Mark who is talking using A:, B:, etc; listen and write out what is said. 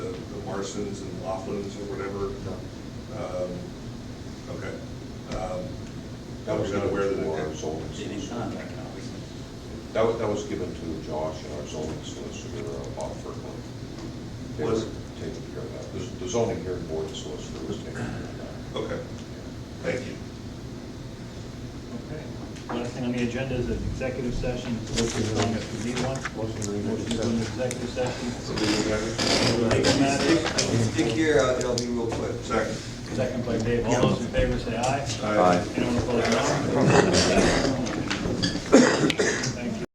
A: Larson's and Laughlin's or whatever?
B: No.
A: Um, Okay. Um,
B: That was
A: I'm not
B: given
A: aware that
B: to
A: it-
B: our zoning
C: It is
B: solicitor.
C: not right now, is it?
B: That was, that was given to Josh and our zoning solicitor, uh, Bob Kirkland. They were
A: Was-
B: taking care of that. The- The zoning hearing board solicitor was taking care of that.
A: Okay, thank you.
D: Okay. Last thing on the agenda is an executive session. Motion on if we need one.
B: Motion to
D: Motion to go into executive session. Legal
A: Second.
D: matters.
E: Stick here, uh, it'll be real quick.
D: Second by Dave. All those in favor say aye.
A: Aye.
D: Anyone opposed, no.